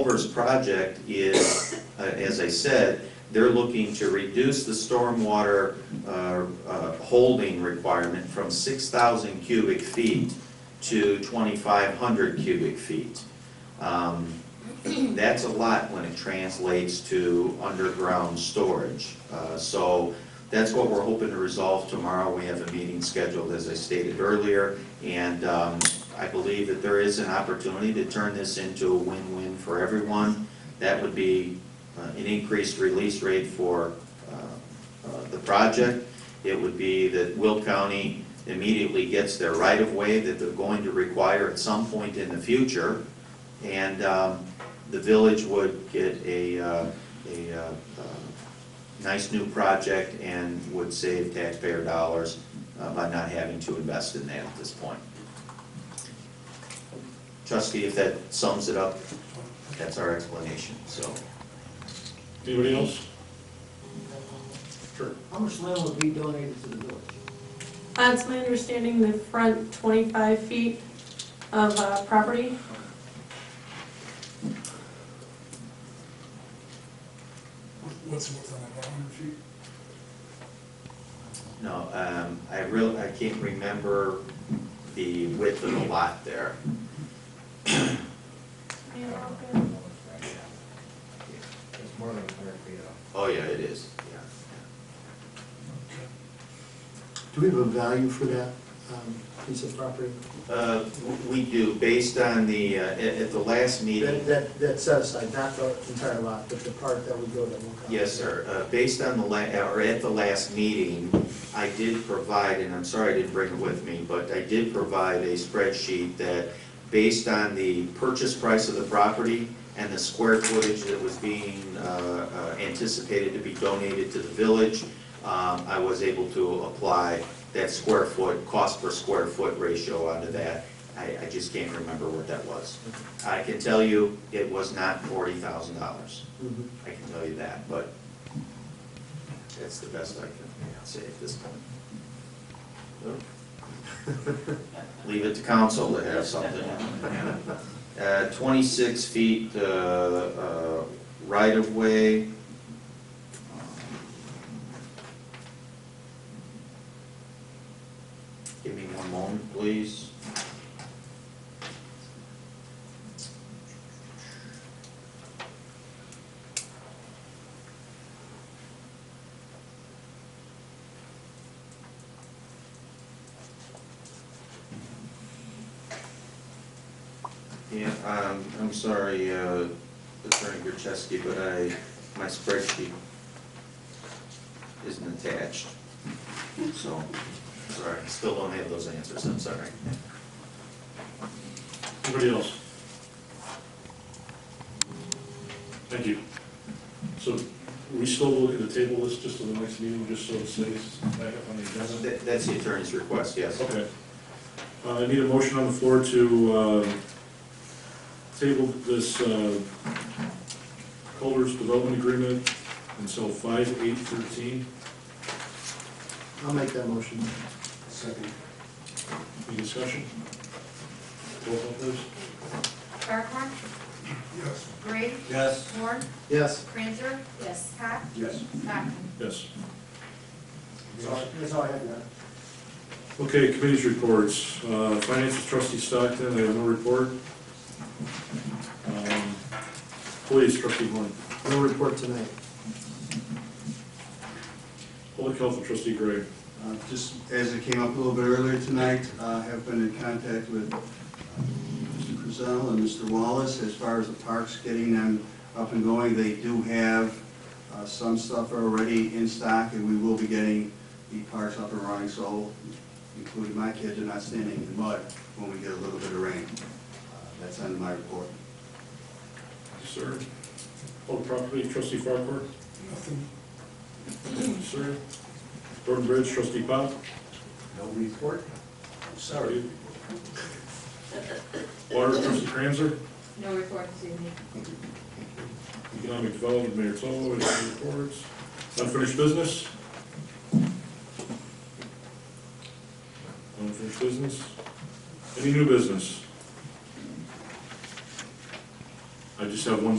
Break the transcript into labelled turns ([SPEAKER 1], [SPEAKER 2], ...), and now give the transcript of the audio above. [SPEAKER 1] Culver's project is, uh, as I said, they're looking to reduce the stormwater uh, uh, holding requirement from 6,000 cubic feet to 2,500 cubic feet. Um, That's a lot when it translates to underground storage. Uh, So that's what we're hoping to resolve tomorrow. We have a meeting scheduled, as I stated earlier, and um, I believe that there is an opportunity to turn this into a win-win for everyone. That would be uh, an increased release rate for uh, uh, the project. It would be that Will County immediately gets their right-of-way that they're going to require at some point in the future. And um, the village would get a, uh, a uh, uh, nice new project and would save taxpayer dollars uh, by not having to invest in that at this point. Trustee, if that sums it up, that's our explanation, so.
[SPEAKER 2] Anybody else? Sure.
[SPEAKER 3] How much land would be donated to the village?
[SPEAKER 4] Uh, It's my understanding the front 25 feet of uh, property.
[SPEAKER 5] What's the width on that, nine hundred feet?
[SPEAKER 1] No, um, I real, I can't remember the width of the lot there.
[SPEAKER 6] It's more than a hundred feet off.
[SPEAKER 1] Oh, yeah, it is, yeah.
[SPEAKER 3] Do we have a value for that um, piece of property?
[SPEAKER 1] Uh, w- we do, based on the, uh, at, at the last
[SPEAKER 3] That,
[SPEAKER 1] meeting,
[SPEAKER 3] that, that set aside, not the entire lot, but the part that would go to Will County.
[SPEAKER 1] yes, sir, uh, based on the la, uh, or at the last meeting, I did provide, and I'm sorry I didn't bring it with me, but I did provide a spreadsheet that, based on the purchase price of the property and the square footage that was being, uh, uh, anticipated to be donated to the village, um, I was able to apply that square foot, cost per square foot ratio onto that. I, I just can't remember what that was. I can tell you, it was not forty thousand dollars.
[SPEAKER 3] Mhm.
[SPEAKER 1] I can tell you that, but that's the best I can say at this point. Leave it to council to have something. Uh, twenty-six feet, uh, uh, right-of-way. Give me one moment, please. Yeah, um, I'm sorry, uh, Attorney Gurcheski, but I, my spreadsheet isn't attached, so, sorry, I still don't have those answers, I'm sorry.
[SPEAKER 2] Anybody else? Thank you. So we still looking to table this just to the next meeting, just so it stays back up on the agenda?
[SPEAKER 1] That- That's the attorney's request, yes.
[SPEAKER 2] Okay. Uh, I need a motion on the floor to, uh, table this, uh, Culver's Development Agreement until five eight thirteen.
[SPEAKER 3] I'll make that motion.
[SPEAKER 5] Second.
[SPEAKER 2] Any discussion? Roll call please.
[SPEAKER 7] Barkhorn,
[SPEAKER 5] Yes.
[SPEAKER 7] Gray,
[SPEAKER 6] Yes.
[SPEAKER 7] Horn,
[SPEAKER 3] Yes.
[SPEAKER 7] Cranzer. Yes. Pat,
[SPEAKER 5] Yes.
[SPEAKER 7] Stockton.
[SPEAKER 2] Yes.
[SPEAKER 3] That's all- That's all I have, Matt.
[SPEAKER 2] Okay, committees reports. Uh, Finance trustee Stockton, they have no report. Um, Police trustee Horn.
[SPEAKER 3] No report tonight.
[SPEAKER 2] Public health trustee Gray.
[SPEAKER 8] Uh, Just as it came up a little bit earlier tonight, uh, I have been in contact with uh, Mr. Crizell and Mr. Wallace as far as the parks, getting them up and going. They do have uh, some stuff already in stock, and we will be getting the parks up and running, so including my kids are not standing in the mud when we get a little bit of rain. Uh, That's under my report.
[SPEAKER 2] Sir. Public property trustee Farquhar.
[SPEAKER 5] Nothing.
[SPEAKER 2] Sir. Road and bridge trustee Pop.
[SPEAKER 6] No report?
[SPEAKER 2] Sorry. Water trustee Cranzer.
[SPEAKER 7] No report this evening.
[SPEAKER 2] Economic development mayor Tolo, any reports? Unfinished business? Unfinished business? Any new business? I I just have one